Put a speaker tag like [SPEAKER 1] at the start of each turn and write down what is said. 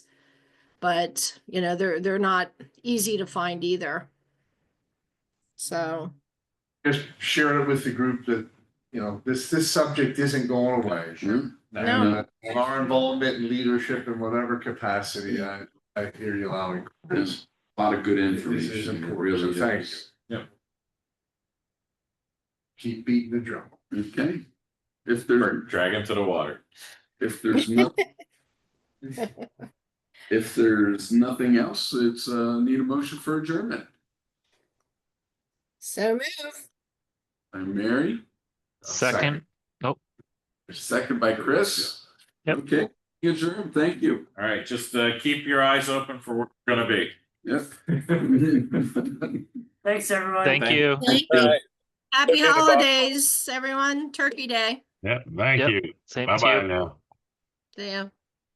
[SPEAKER 1] but you know, they're, they're not easy to find either. So,
[SPEAKER 2] just sharing it with the group that, you know, this, this subject isn't going away.
[SPEAKER 3] Sure.
[SPEAKER 2] And, uh, and Our involvement in leadership in whatever capacity, I, I hear you loud.
[SPEAKER 3] There's a lot of good
[SPEAKER 2] This is
[SPEAKER 3] information, it
[SPEAKER 2] important, so
[SPEAKER 3] really is.
[SPEAKER 2] thanks. Yep. Keep beating the drum.
[SPEAKER 3] Okay, if there,
[SPEAKER 4] Drag him to the water.
[SPEAKER 3] if there's no. If there's nothing else, it's uh need a motion for adjournment.
[SPEAKER 1] so move.
[SPEAKER 3] I'm Mary,
[SPEAKER 5] Second,
[SPEAKER 3] second by Chris.
[SPEAKER 5] Yep.
[SPEAKER 3] Okay, adjourn, thank you.
[SPEAKER 4] All right, just uh keep your eyes open for where we're gonna be.
[SPEAKER 3] Yep.
[SPEAKER 6] Thanks, everyone.
[SPEAKER 5] thank
[SPEAKER 4] Thank-
[SPEAKER 5] you.
[SPEAKER 1] Thank
[SPEAKER 4] All
[SPEAKER 1] you.
[SPEAKER 4] right.
[SPEAKER 1] Happy
[SPEAKER 4] Okay, bye.
[SPEAKER 1] holidays, everyone. Turkey Day.
[SPEAKER 7] Yeah, thank
[SPEAKER 5] Yep.
[SPEAKER 7] you.
[SPEAKER 5] Same
[SPEAKER 7] Bye
[SPEAKER 5] to you.
[SPEAKER 7] bye now.
[SPEAKER 1] Yeah.